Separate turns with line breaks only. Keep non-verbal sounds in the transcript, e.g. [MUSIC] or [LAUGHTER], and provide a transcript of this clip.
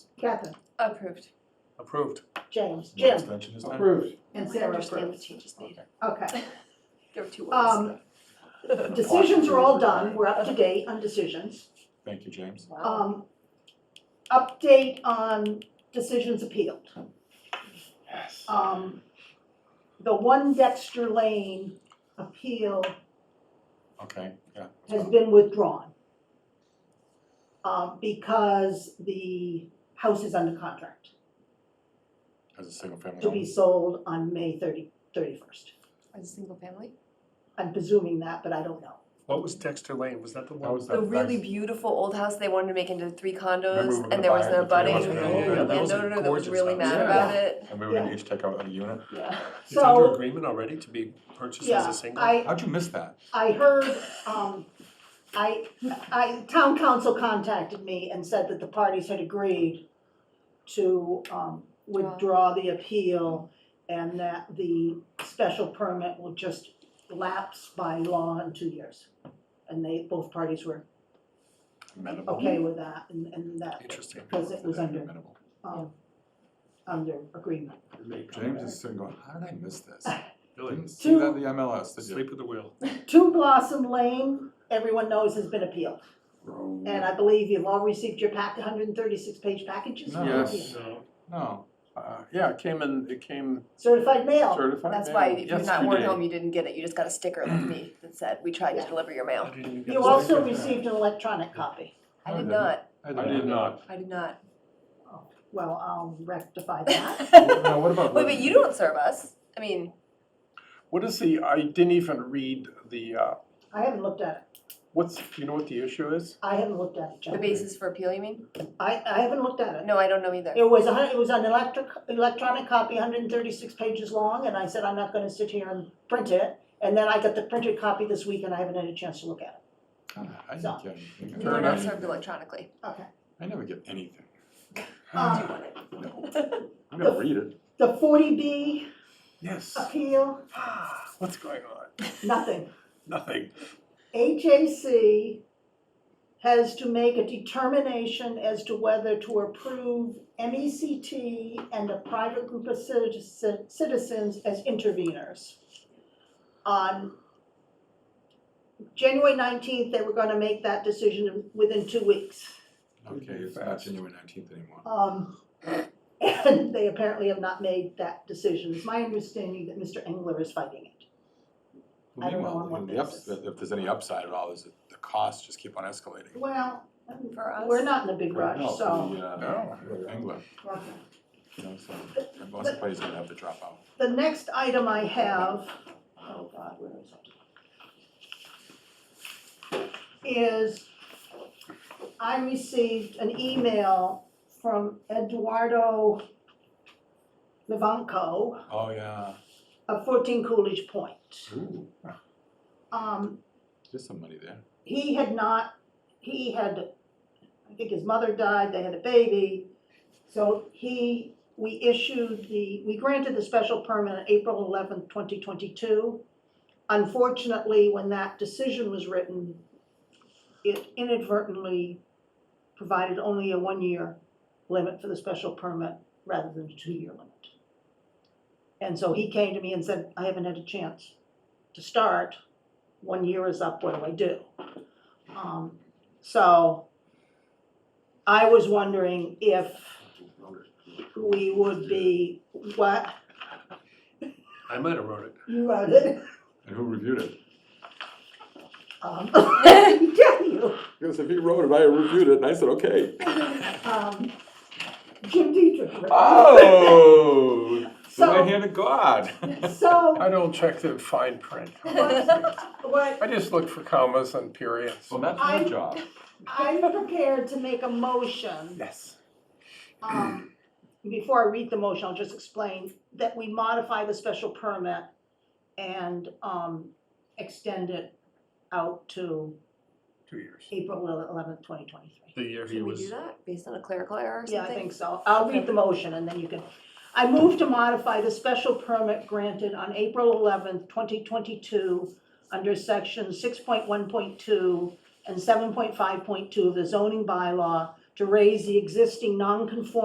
Catherine,
Approved.
Approved.
James,
One
Jim,
extension this time?
Approved.
and
We
Sarah
understand
approved.
what you just needed.
Okay.
There were two words.
Um, Decisions are all done, we're up to date on decisions.
Thank you, James.
Wow.
Um, Update on decisions appealed.
Yes.
Um, The one Dexter Lane appeal
Okay, yeah.
has been withdrawn um, because the house is under contract
As a single family
to be
home.
sold on May 30 31st.
As a single family?
I'm presuming that, but I don't know.
What was Dexter Lane? Was that the
That
one?
was
The
that
really
nice-
beautiful old house they wanted to make into three
Remember we were
condos,
gonna
and there was
buy
no
it, but they
budding
wanted to build it. Yeah, that
was a
landowner that
gorgeous
was really
house.
mad
Yeah.
about it.
And we were gonna each take out a unit.
Yeah.
It's under
So,
agreement already to be purchased as
yeah,
a single?
I,
How'd you miss that?
I heard, um, I, I, town council contacted me and said that the parties had agreed to, um, withdraw the appeal and that the special permit will just lapse by law in two years. And they, both parties were
Amenable.
okay
Mm-hmm.
with that and, and that,
Interesting.
because it was under,
Amenable.
um, under agreement.
James is sitting going, how did I
[LAUGHS]
miss this?
Really?
Didn't see that
Two-
in the MLS, did you?
Sleep with the wheel.
Two Blossom Lane, everyone knows has been appealed.
Bro.
And I believe you've all received your pack, hundred and thirty-six page packages?
No.
Yes.
No.
No,
Uh, yeah, it came in, it came
Certified mail,
certified.
That's why
mail
if you're not
yesterday.
born home, you didn't get it. You just got a sticker like me that said, we tried to deliver your
I
mail.
didn't even get
you
a
also
second.
received an electronic copy.
I
I
did
didn't.
not,
I did not.
I did not.
[LAUGHS]
Well, I'll rectify that.
Now,
Wait,
[LAUGHS]
what about?
but you don't serve us. I mean,
What is the, I didn't even read the, uh,
I haven't looked at it,
what's, do you know what the issue is?
I haven't looked at it,
the
Joe.
basis for appeal, you mean?
I, I haven't looked at it.
No, I don't know either.
It was a hun, it was an electric, electronic copy, hundred and thirty-six pages long, and I said, I'm not gonna sit here and print it. And then I got the printed copy this week and I haven't had a chance to look at
Ah, I didn't get anything.
You were not served electronically.
it. Okay.
I never get
[LAUGHS]
anything.
Do you
Um,
want it?
[LAUGHS]
I'm gonna read it.
the forty B
Yes.
appeal, Ah.
What's going on?
nothing.
Nothing.
HAC has to make a determination as to whether to approve MECT and a private group of citizen- citizens as interveners. On January nineteenth, they were gonna make that decision within two weeks.
Okay, it's not
Fast.
January nineteenth anymore.
Um, and they apparently have not made that decision. It's my understanding that Mr. Engler is fighting it. I don't know
Meanwhile,
on what
the ups-
basis.
If there's any upside at all, is that the costs just keep on escalating.
Well,
For us? [LAUGHS]
we're not in a big
No,
rush, so.
the, uh,
No.
England,
Okay.
you know, so most of the players are gonna have to drop out.
The next item I have, oh God, where is it? Is I received an email from Eduardo Levanco
Oh, yeah.
of fourteen Coolidge Point.
Ooh,
Um,
there's some money there.
he had not, he had, I think his mother died, they had a baby. So he, we issued the, we granted the special permit on April eleventh, twenty twenty-two. Unfortunately, when that decision was written, it inadvertently provided only a one-year limit for the special permit rather than a two-year limit. And so he came to me and said, I haven't had a chance to start. One year is up, what do I do? Um, so I was wondering if we would be, what,
I might have wrote it.
you wrote it?
And who reviewed it?
Um, [LAUGHS] I tell you,
Because if he wrote it, I reviewed it, and I said, okay.
um, Jim Dietrich. wrote it.
Oh, the right
[LAUGHS] So,
hand
[LAUGHS]
of God.
so
I don't check the
[LAUGHS]
fine print.
what,
I just look for commas and periods.
Well, that's
I-
my job.
I'm prepared to make a motion,
Yes.
um, before I read the motion, I'll just explain that we modify the special permit and, um, extend it out to
Two years.
April eleventh, twenty twenty-three.
The year he
Should we do
was,
that based on a clerical error or something?
Yeah, I think so. I'll read the motion and then you can. I move to modify the special permit granted on April eleventh, twenty twenty-two under section six point one point two and seven point five point two of the zoning bylaw to raise the existing non-conforming